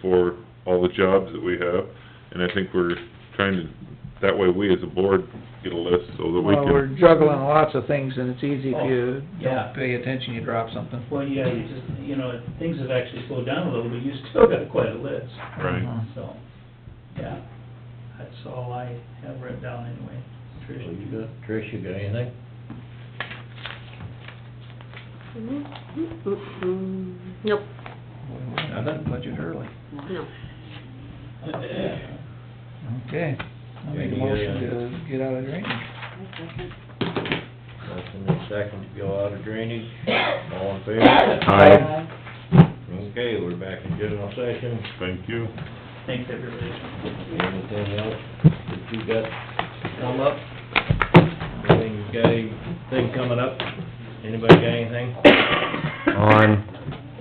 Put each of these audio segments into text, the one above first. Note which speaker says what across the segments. Speaker 1: for all the jobs that we have. And I think we're trying to, that way we as a board get a list so that we
Speaker 2: Well, we're
Speaker 1: can,
Speaker 2: juggling lots of things, and it's easy
Speaker 3: Oh,
Speaker 2: if you
Speaker 3: yeah.
Speaker 2: don't pay attention, you drop something.
Speaker 3: Well, yeah, you just, you know, things have actually slowed down a little, but you still got quite a list,
Speaker 1: right?
Speaker 2: Mhm.
Speaker 3: so, yeah. That's all I have written down anyway.
Speaker 4: Well, you
Speaker 3: Trish,
Speaker 4: got, Trish, you got anything?
Speaker 5: Nope,
Speaker 2: I done budget early.
Speaker 5: no.
Speaker 2: Okay. I'll make a
Speaker 4: Yeah,
Speaker 2: motion
Speaker 4: yeah.
Speaker 2: to get out of drainage.
Speaker 4: Nothing in second to go out of drainage, all in favor?
Speaker 1: Aye.
Speaker 4: Okay, we're back in general session,
Speaker 1: Thank you.
Speaker 3: thanks, everybody.
Speaker 4: anything else that you got come up? Anything, you got anything coming up? Anybody got anything?
Speaker 6: on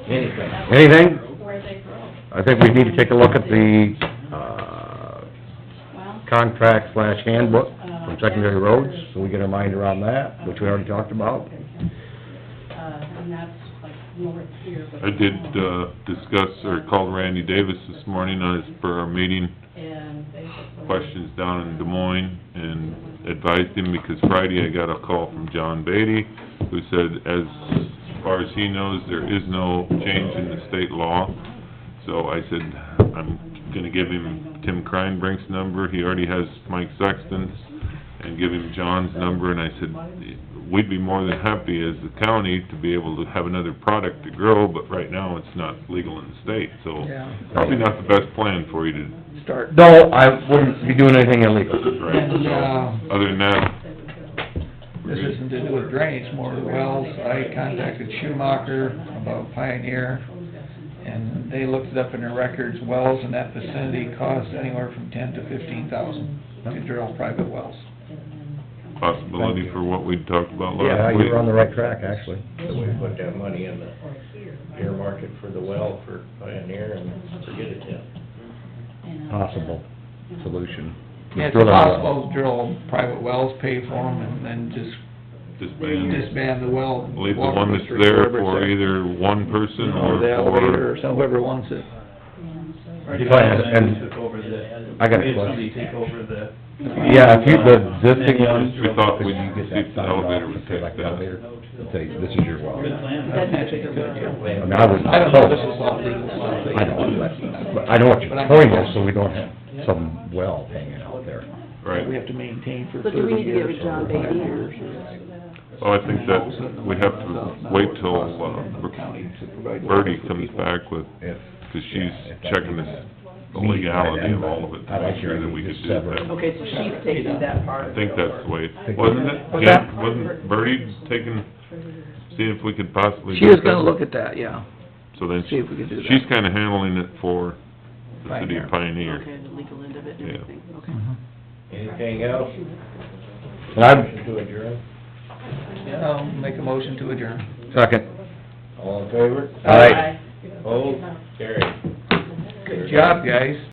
Speaker 4: Anything?
Speaker 6: anything,
Speaker 7: where they grow.
Speaker 6: I think we need to take a look at the, uh,
Speaker 7: Well,
Speaker 6: contract slash handbook from secondary roads, so we get our mind around that, which we already talked about.
Speaker 7: uh, and that's like north here, but.
Speaker 1: I did, uh, discuss, or called Randy Davis this morning on his, for our meeting,
Speaker 7: And they just-
Speaker 1: questions down in Des Moines and advised him, because Friday I got a call from John Beatty, who said, as far as he knows, there is no change in the state law. So I said, I'm gonna give him Tim Kreinbrink's number, he already has Mike Sexton's, and give him John's number, and I said, we'd be more than happy as the county to be able to have another product to grow, but right now it's not legal in the state, so
Speaker 2: Yeah,
Speaker 1: probably not the best plan for you to
Speaker 2: start.
Speaker 6: No, I wouldn't be doing anything illegal.
Speaker 1: Right,
Speaker 2: And, uh,
Speaker 1: so, other than that,
Speaker 2: This isn't to do with drainage, more with wells. I contacted Schumacher about Pioneer, and they looked it up in their records. Wells in that vicinity cost anywhere from ten to fifteen thousand to drill private wells.
Speaker 1: possibility for what we talked about
Speaker 6: Yeah,
Speaker 1: last week.
Speaker 6: you're on the right track, actually.
Speaker 4: So we put that money in the earmark it for the well for Pioneer and forget it then.
Speaker 7: uh,
Speaker 6: Possible solution.
Speaker 2: Yeah, it's possible to drill private wells, pay for them, and then just
Speaker 1: Disband.
Speaker 2: disband the well.
Speaker 1: Leave the
Speaker 2: water
Speaker 1: one that's
Speaker 2: district,
Speaker 1: there
Speaker 2: whoever's
Speaker 1: for either one person or
Speaker 2: Or the elevator
Speaker 1: for,
Speaker 2: or some- whoever wants it.
Speaker 3: Already
Speaker 6: Go ahead,
Speaker 3: had somebody
Speaker 6: and-
Speaker 3: took over the-
Speaker 6: I got a
Speaker 3: we had
Speaker 6: question.
Speaker 3: Somebody take over the.
Speaker 6: Yeah, if you, the existing one,
Speaker 1: we thought
Speaker 6: could
Speaker 1: we'd
Speaker 6: you get
Speaker 1: see if
Speaker 6: that
Speaker 1: the
Speaker 6: signed
Speaker 1: elevator
Speaker 6: off
Speaker 1: would
Speaker 6: and say
Speaker 1: take
Speaker 6: like
Speaker 1: that.
Speaker 6: elevator, and say, this is your well?
Speaker 3: Good plan.
Speaker 2: That's actually a good idea.
Speaker 6: I mean, I wouldn't,
Speaker 2: I don't know, this is all legal stuff.
Speaker 6: I know, but, but I know what your point is, so we don't have some well hanging out there.
Speaker 1: Right,
Speaker 2: We have to maintain for
Speaker 5: So do we
Speaker 2: thirty
Speaker 5: need to give
Speaker 2: years
Speaker 5: it
Speaker 2: or
Speaker 5: John
Speaker 2: five
Speaker 5: Beatty
Speaker 2: years.
Speaker 5: or?
Speaker 1: well, Oh, I think that we have to wait till, uh, Bertie comes back with,
Speaker 6: If,
Speaker 1: cause she's checking this, the legality of all of it, to make sure that we could do that.
Speaker 5: Okay, so she's taking that
Speaker 1: I
Speaker 5: part of it
Speaker 1: think
Speaker 5: over.
Speaker 1: that's the way, wasn't it, Jan, wasn't Bertie taking, seeing if we could possibly
Speaker 2: She
Speaker 1: do
Speaker 2: is gonna
Speaker 1: something?
Speaker 2: look at that, yeah.
Speaker 1: So then,
Speaker 2: See if we can do that.
Speaker 1: she's kinda handling it for the city of Pioneer.
Speaker 5: Okay, the legal end of it and
Speaker 1: Yeah.
Speaker 5: everything, okay.
Speaker 4: Anything else?
Speaker 6: and I'm,
Speaker 4: Motion to adjourn,
Speaker 2: Yeah, I'll make a motion to adjourn.
Speaker 6: second,
Speaker 4: all in favor?
Speaker 6: all right.
Speaker 4: Opposed? Carried.
Speaker 2: Good job, guys.